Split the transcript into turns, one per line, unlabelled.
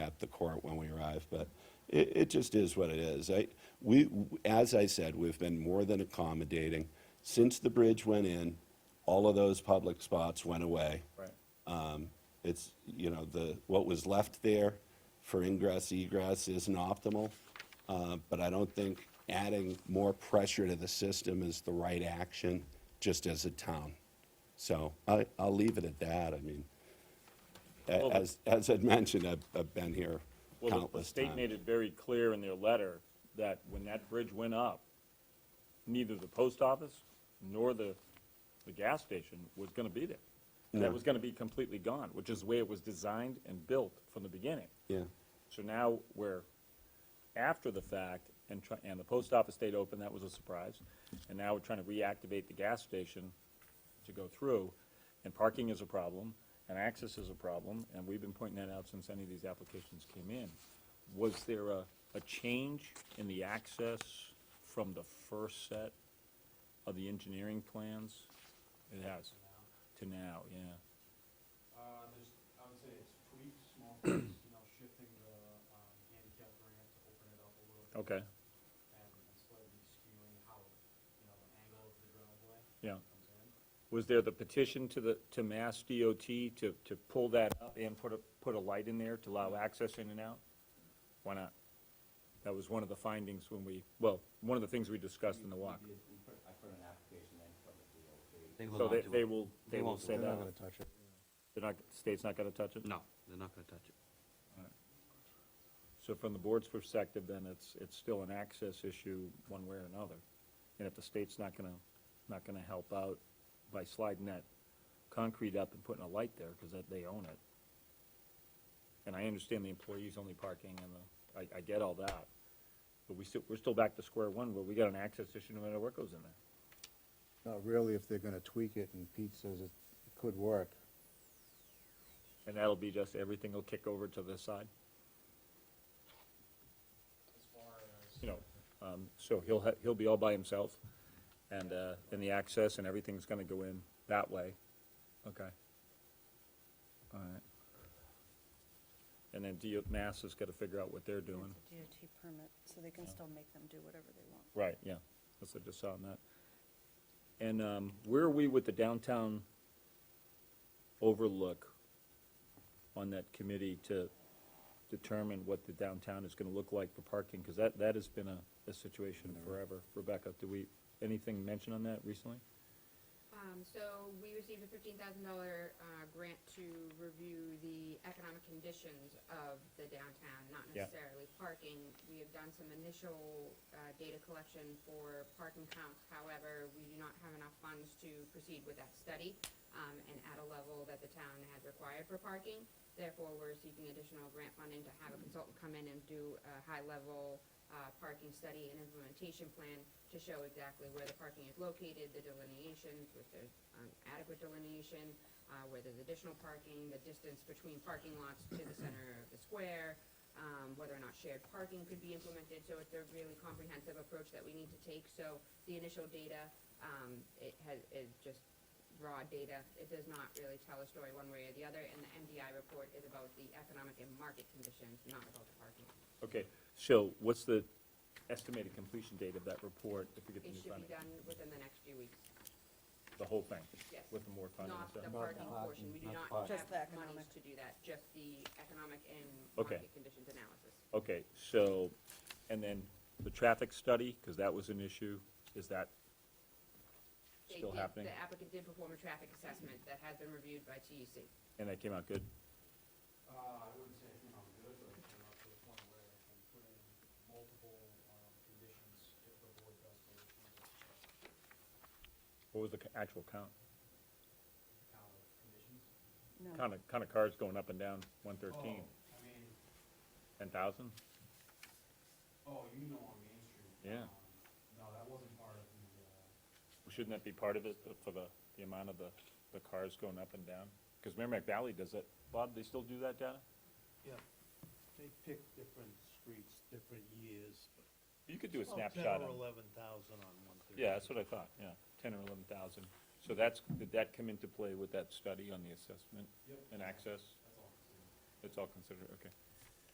at the court when we arrive, but it, it just is what it is. I, we, as I said, we've been more than accommodating. Since the bridge went in, all of those public spots went away.
Right.
Um, It's, you know, the, what was left there for ingress, egress isn't optimal, uh, but I don't think adding more pressure to the system is the right action, just as a town. So I, I'll leave it at that, I mean, a-
Well,
as, as I'd mentioned, I've, I've been here
Well, the- the
countless
state
times.
made it very clear in their letter that when that bridge went up, neither the post office nor the, the gas station was gonna be there. That was gonna be completely gone, which is the way it was designed and built from the beginning.
Yeah,
So now we're after the fact, and try, and the post office stayed open, that was a surprise. And now we're trying to reactivate the gas station to go through, and parking is a problem, and access is a problem, and we've been pointing that out since any of these applications came in. Was there a, a change in the access from the first set of the engineering plans? It has, to now, yeah.
Uh, there's, I would say it's tweaks, small tweaks, you know, shifting the, um, handicap ramp to open it up a little bit.
Okay,
And and slightly skewing how, you know, the angle of the driveway
yeah.
comes in.
Was there the petition to the, to Mass DOT to, to pull that up and put a, put a light in there to allow access in and out? Why not? That was one of the findings when we, well, one of the things we discussed in the walk.
They will
So
not
they,
do
they
it.
will, they will say that. They're not gonna touch it. They're not, state's not gonna touch it?
No, they're not gonna touch it.
So from the board's perspective, then it's, it's still an access issue one way or another. And if the state's not gonna, not gonna help out by sliding that concrete up and putting a light there, because that, they own it. And I understand the employees only parking and the, I, I get all that. But we still, we're still back to square one, where we got an access issue no matter what goes in there.
Not really if they're gonna tweak it and Pete says it could work.
And that'll be just, everything will kick over to this side,
As far as,
you know? Um, so he'll, ha- he'll be all by himself, and, uh, and the access and everything's gonna go in that way. Okay. All right. And then DO, Mass has gotta figure out what they're doing.
It's a DOT permit, so they can still make them do whatever they want.
Right, yeah, that's what I just saw on that. And, um, where are we with the downtown overlook on that committee to determine what the downtown is gonna look like for parking? Cause that, that has been a, a situation forever. Rebecca, do we, anything mentioned on that recently?
Um, so we received a fifteen thousand dollar, uh, grant to review the economic conditions of the downtown, not
Yeah.
necessarily parking. We have done some initial, uh, data collection for parking counts, however, we do not have enough funds to proceed with that study, um, and at a level that the town has required for parking. Therefore, we're seeking additional grant funding to have a consultant come in and do a high-level, uh, parking study and implementation plan to show exactly where the parking is located, the delineations, if there's um, adequate delineation, uh, where there's additional parking, the distance between parking lots to the center of the square, um, whether or not shared parking could be implemented, so it's a really comprehensive approach that we need to take. So the initial data, um, it has, is just raw data. It does not really tell a story one way or the other, and the MDI report is about the economic and market conditions, not about the parking.
Okay, so what's the estimated completion date of that report if we get the
It
new
should be
funding?
done within the next few weeks.
The whole thing?
Yes.
With the more funding and
Not
stuff?
the parking portion, we do not have
Just the economic.
monies to do that, just the economic and
Okay.
market conditions analysis.
Okay, so, and then the traffic study, because that was an issue, is that
They
still
did-
happening?
The applicant did perform a traffic assessment that has been reviewed by E TEC.
And that came out good?
uh, I wouldn't say, you know, good, but you know, to the point where I can put in multiple, um, conditions if the board does believe in the
What was the c- actual count?
count of conditions.
No.
Kind of, kind of cars going up and down one thirteen,
Oh, I mean,
ten thousand?
oh, you know on Main Street.
Yeah.
um, No, that wasn't part of the, uh,
Shouldn't that be part of it uh, for the, the amount of the, the cars going up and down? Because Merrimack Valley does it. Bob, they still do that data?
Yeah, they pick different streets, different years. but
You could do a
about
snapshot.
Oh, Ten or
on-
eleven thousand on one thirty.
Yeah, that's what I thought, yeah, ten or eleven thousand. So that's, did that come into play with that study on the assessment?
Yep.
And access?
that's all.
It's all considered, okay.